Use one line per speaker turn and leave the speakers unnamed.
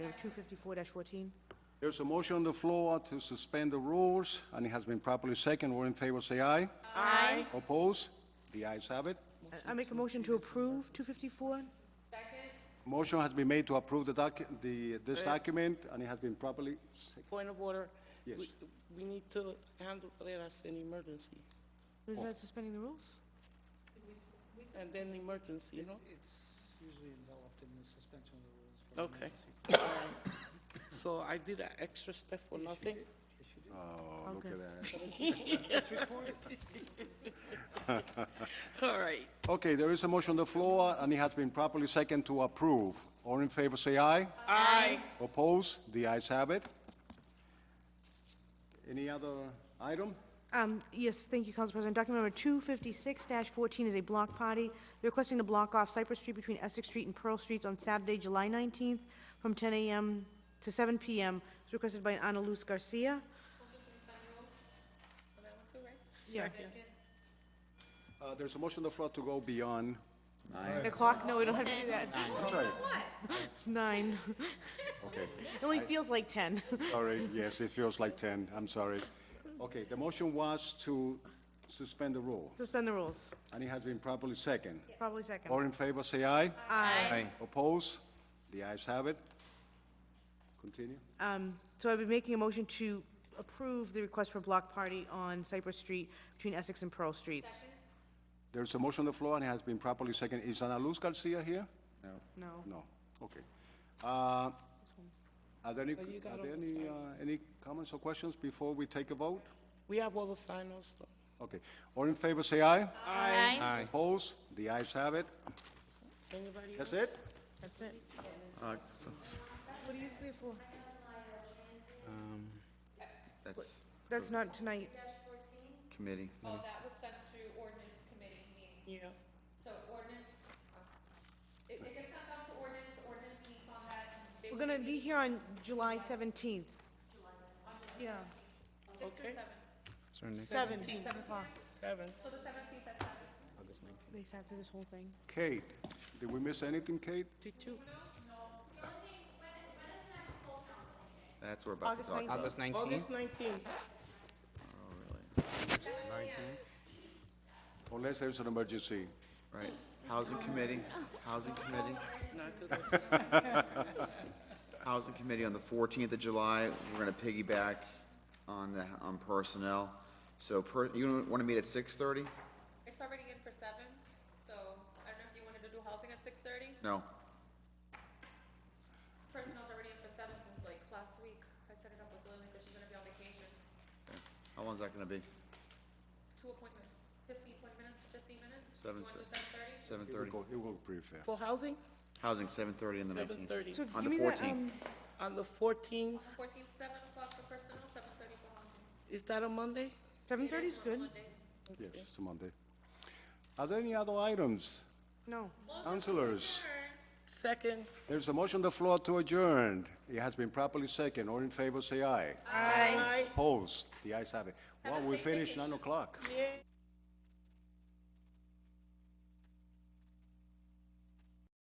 254-14.
There's a motion on the floor to suspend the rules, and it has been properly second. All in favor, say aye.
Aye.
Oppose? The ayes have it.
I make a motion to approve 254.
Motion has been made to approve the docu, the, this document, and it has been properly second.
Point of order.
Yes.
We- We need to handle it as an emergency,
Isn't that suspending the rules?
and then emergency, you know?
It's usually enveloped in the suspension of the rules. for
Okay.
emergency.
So I did an extra step for nothing?
Oh, look
Okay.
at that.
All right.
Okay, there is a motion on the floor, and it has been properly second to approve. All in favor, say aye.
Aye.
Oppose? The ayes have it. Any other item?
Um, Yes, thank you, Council President. Document number 256-14 is a block party. They're requesting to block off Cypress Street between Essex Street and Pearl Streets on Saturday, July 19th, from 10 a.m. to 7 p.m. It's requested by Ana Luz Garcia. Yeah.
Uh, there's a motion on the floor to go beyond.
Nine o'clock? No, we don't have to do that.
I'm sorry.
Nine.
Okay,
It only feels like 10.
sorry, yes, it feels like ten, I'm sorry. Okay, the motion was to suspend the rule,
Suspend the rules.
and it has been properly second.
Probably second.
All in favor, say aye.
Aye.
Oppose? The ayes have it. Continue.
Um, So I've been making a motion to approve the request for block party on Cypress Street between Essex and Pearl Streets.
There's a motion on the floor, and it has been properly second. Is Ana Luz Garcia here? No.
No.
No, okay. Uh, Are there any, are there any, uh, any comments or questions before we take a vote?
We have all the sign-offs, though.
Okay, all in favor, say aye.
Aye.
Oppose? The ayes have it.
Anybody
That's it?
That's it.
uh,
Uh, That's
That's not tonight.
committee.
Oh, that was sent through ordinance committee meeting,
Yeah.
so ordinance, uh, if it gets sent out to ordinance, ordinance meets on that. they
We're gonna be here on July 17th. Yeah,
Okay.
seven. o'clock.
Seven.
They sat through this whole thing.
Kate, did we miss anything, Kate?
Did you?
That's what we're about to
August
talk
19th.
about.
August nineteenth?
August nineteenth.
Unless there's an emergency.
Right. Housing committee, housing committee, housing committee on the fourteenth of July. We're gonna piggyback on the, on personnel. So per, you wanna meet at six thirty?
It's already in for seven, so I don't know if you wanted to do housing at six thirty?
No.
Personnel's already in for seven since like last week. I set it up with Lily, because she's gonna be on vacation.
How long's that gonna be?
Two appointments, fifteen minutes, fifteen minutes?
Seven
You wanna do
thir-
seven thirty?
Seven
It will
thirty?
go- it will be fair.
For housing?
Housing, seven thirty on the
Seven
nineteenth.
thirty.
So
On
give me
the
that,
14th.
um,
On the fourteenth,
Fourteen, seven o'clock for personnel, seven thirty for housing.
is that a Monday?
7:30 is good.
Yes, it's a Monday. Are there any other items?
No.
Councilors,
Second.
there's a motion on the floor to adjourn. It has been properly second. All in favor, say aye.
Aye.
Opposed? The ayes have it. Well, we finished nine o'clock.
Yeah.